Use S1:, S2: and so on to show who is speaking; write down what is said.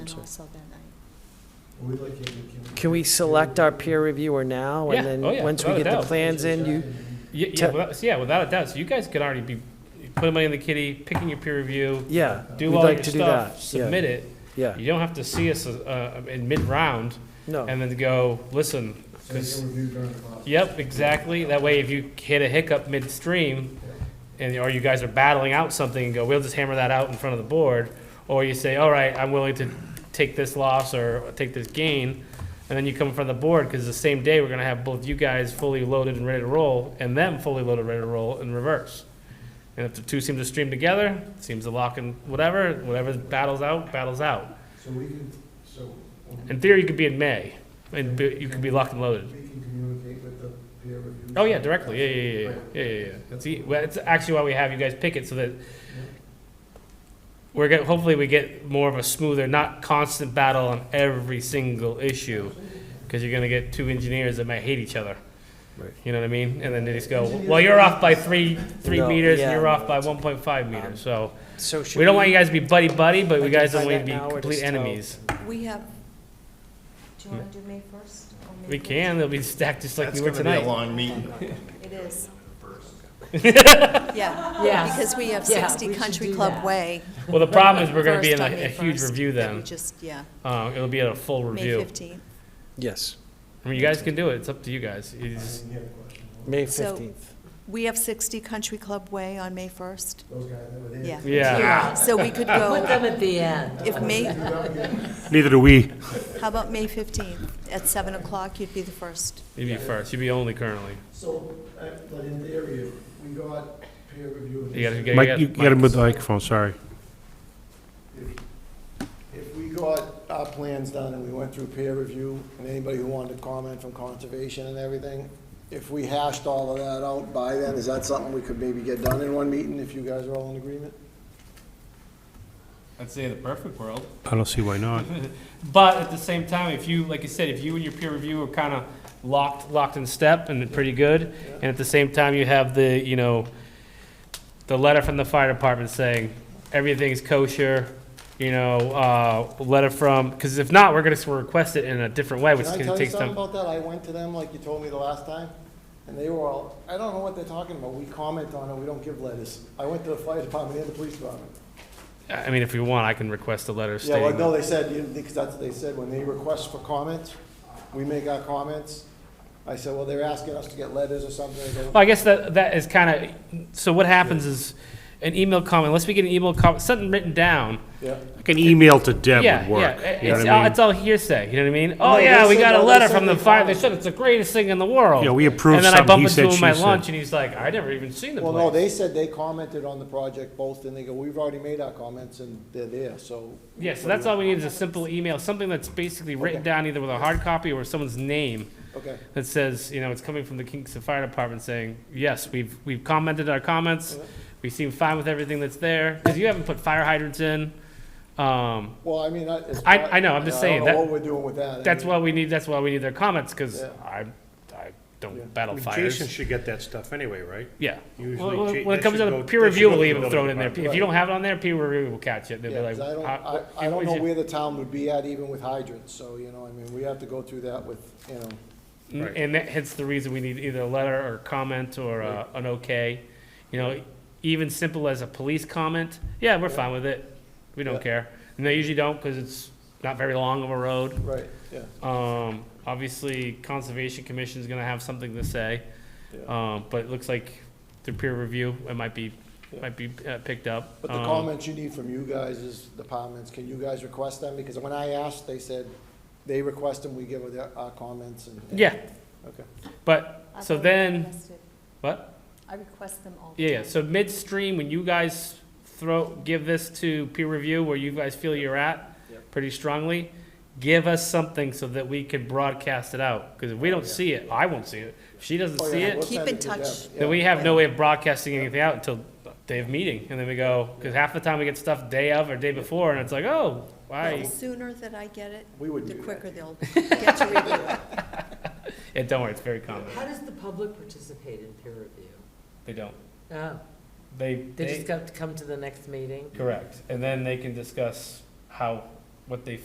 S1: and
S2: sorry.
S1: also that night.
S3: We'd like you to-
S4: Can we select our peer reviewer now?
S2: Yeah.
S4: And then,
S2: Oh, yeah.
S4: once we
S2: Without a
S4: get the
S2: doubt.
S4: plans in, you,
S2: Yeah, yeah,
S4: Te-
S2: without, so yeah, without a doubt. So you guys could already be putting money in the kitty, picking your peer review,
S4: yeah.
S2: do
S4: we'd
S2: all
S4: like
S2: your
S4: to do
S2: stuff,
S4: that, yeah,
S2: submit it.
S4: Yeah,
S2: You don't have to see us uh, in mid round
S4: no,
S2: and then go listen.
S3: So you can review during the process.
S2: Yep, exactly. That way, if you hit a hiccup midstream, and or you guys are battling out something and go, we'll just hammer that out in front of the board, or you say, all right, I'm willing to take this loss or take this gain, and then you come in front of the board because the same day we're gonna have both you guys fully loaded and ready to roll, and them fully loaded, ready to roll in reverse. And if the two seem to stream together, seems to lock in whatever, whatever battles out, battles out.
S3: So we can, so.
S2: In theory, you could be in May, and be- you could be locked and loaded.
S3: We can communicate with the peer review.
S2: Oh yeah, directly. Yeah, yeah, yeah, yeah, yeah, yeah. yeah. See, well, it's actually why we have you guys pick it so that we're get, hopefully we get more of a smoother, not constant battle on every single issue, because you're gonna get two engineers that might hate each other.
S4: Right.
S2: You know what I mean? And then they just go, well, you're off by three, three
S4: No,
S2: meters, and
S4: yeah.
S2: you're off by 1.5 meters. So
S4: so should
S2: we don't want you guys to be buddy buddy, but we guys
S4: identify
S2: don't want you to
S4: that
S2: be
S4: now or
S2: complete
S4: just tell-
S2: enemies.
S1: We have, do you want to do May 1st? or May
S2: We can. They'll be stacked just like we were tonight.
S5: That's gonna be a long meeting.
S1: 14th? It is. Yeah.
S6: Yeah.
S1: Because we have
S6: Yeah,
S1: 60
S6: we should
S1: Country
S6: do
S1: Club
S6: that.
S1: Way.
S2: well, the problem is we're gonna be in
S1: first
S2: a,
S1: on May
S2: a huge
S1: 1st,
S2: review
S1: that we
S2: then.
S1: just, yeah,
S2: Uh, it'll be a full
S1: May
S2: review.
S1: 15th.
S4: Yes,
S2: I mean, you guys can do it. It's up to you guys. You
S3: I
S2: just-
S3: didn't hear the question.
S4: May
S1: So-
S4: 15th.
S1: We have 60 Country Club Way on May 1st.
S3: Those guys that were there.
S1: Yeah.
S2: yeah.
S1: So we could
S6: Put
S1: go,
S6: them at the end.
S1: if May,
S7: Neither do we.
S1: how about May 15th? At 7 o'clock, you'd be the first.
S2: You'd be first. You'd be only currently.
S3: So, uh, but in theory, if we got peer review.
S2: You gotta, you gotta,
S7: Mike, you gotta move the
S2: Mike's-
S7: microphone, sorry.
S3: If we got our plans done and we went through peer review, and anybody who wanted to comment from conservation and everything, if we hashed all of that out by then, is that something we could maybe get done in one meeting if you guys are all in agreement?
S2: I'd say the perfect world.
S7: I don't see why not.
S2: But at the same time, if you, like you said, if you and your peer review are kind of locked, locked in step and pretty good, and at the same time you have the, you know, the letter from the fire department saying everything's kosher, you know, uh, letter from, because if not, we're gonna s- request it in a different way, which
S3: Can I
S2: is
S3: tell
S2: gonna
S3: you
S2: take
S3: something
S2: some.
S3: about that? I went to them like you told me the last time, and they were all, I don't know what they're talking about. We comment on it, we don't give letters. I went to the fire department and the police department.
S2: I mean, if you want, I can request a letter
S3: Yeah, well,
S2: stating.
S3: no, they said, you- because that's what they said, when they request for comments, we make our comments. I said, well, they're asking us to get letters or something. They go,
S2: Well, I guess that, that is kind of, so what happens is, an email comment, unless we get an email comment, something written down.
S3: Yeah.
S7: Like an email to Deb
S2: Yeah,
S7: would
S2: yeah,
S7: work.
S2: it-
S7: You know
S2: it's
S7: what
S2: all,
S7: I
S2: it's
S7: mean?
S2: all hearsay, you know what I mean? Oh,
S3: they
S2: yeah, we
S3: said-
S2: got a
S3: no, they
S2: letter
S3: said
S2: from the
S3: they
S2: fire,
S3: found
S2: they
S3: it.
S2: said it's the greatest thing in the world.
S7: Yeah, we approved
S2: And then I
S7: something,
S2: bump
S7: he
S2: into
S7: said,
S2: him
S7: she
S2: at
S7: said.
S2: lunch, and he's like, I never even seen the
S3: Well, no,
S2: place.
S3: they said they commented on the project both, and they go, we've already made our comments, and they're there, so.
S2: Yeah, so that's all we need is a simple email, something that's basically written
S3: Okay.
S2: down either with a hard copy or someone's name
S3: Okay,
S2: that says, you know, it's coming from the Kingston Fire Department saying, yes, we've, we've commented our comments, we seem fine with everything that's there, because you haven't put fire hydrants in. Um,
S3: well, I mean, I. it's
S2: I-
S3: not-
S2: I know, I'm just
S3: I
S2: saying
S3: don't
S2: that-
S3: know what we're doing with that. I
S2: That's
S3: mean,
S2: why we need, that's why we need their comments, because
S3: Yeah.
S2: I, I
S3: Yeah.
S2: don't battle
S7: Jason
S2: fires.
S7: should get that stuff anyway, right?
S2: Yeah. Well,
S7: Usually
S2: well,
S7: Ja-
S2: When it
S7: that
S2: comes
S7: should
S2: to the
S7: go- that
S2: peer
S7: should
S2: review,
S7: go to
S2: we'll
S7: the
S2: even
S7: building
S2: throw it in there.
S7: department.
S2: If you don't have it on there, peer review will catch it. They'll be
S3: Yeah, 'cause
S2: like,
S3: I don't,
S2: "Uh,
S3: I,
S2: what-
S3: I don't
S2: what
S3: know
S2: you-"
S3: where the town would be at even with hydrants, so, you know, I mean, we have to go through that with, you know.
S2: N- And that hence the reason we need either a letter or comment or uh, an okay. You know, even simple as a police comment, yeah, we're fine with it. We
S3: Yeah.
S2: don't care. And they usually don't because it's not very long of a road.
S3: Right, yeah.
S2: Um, obviously, Conservation Commission's gonna have something to say.
S3: Yeah.
S2: Um, but it looks like through peer review, it might be,
S3: Yeah.
S2: might be uh, picked up.
S3: But the
S2: Um,
S3: comments you need from you guys is departments, can you guys request them? Because when I asked, they said, they request them, we give them their- our comments and.
S2: Yeah,
S3: Okay.
S2: but,
S1: I've
S2: so
S1: already
S2: then,
S1: requested-
S2: what?
S1: I request them all. the
S2: Yeah, yeah,
S1: time.
S2: so midstream, when you guys throw, give this to peer review where you guys feel you're at
S3: Yep.
S2: pretty strongly, give us something so that we can broadcast it out. Because if we don't see it, I won't see it. If she doesn't
S3: Oh, yeah,
S2: see
S3: we'll
S2: it,
S1: Keep
S3: send
S1: in
S3: it to them.
S1: touch.
S3: Yeah.
S2: then we have no way of broadcasting anything out until day of meeting. And then we go, because half the time we get stuff day of or day before, and it's like, oh,
S1: The
S2: why?
S1: sooner that I get it,
S3: We would
S1: the
S3: do that.
S1: quicker they'll get to review it.
S2: And don't worry, it's very common.
S6: How does the public participate in peer review?
S2: They don't.
S6: Oh,
S2: They,
S6: they just
S2: they,
S6: got to come to the next meeting?
S2: correct. And then they can discuss how, what they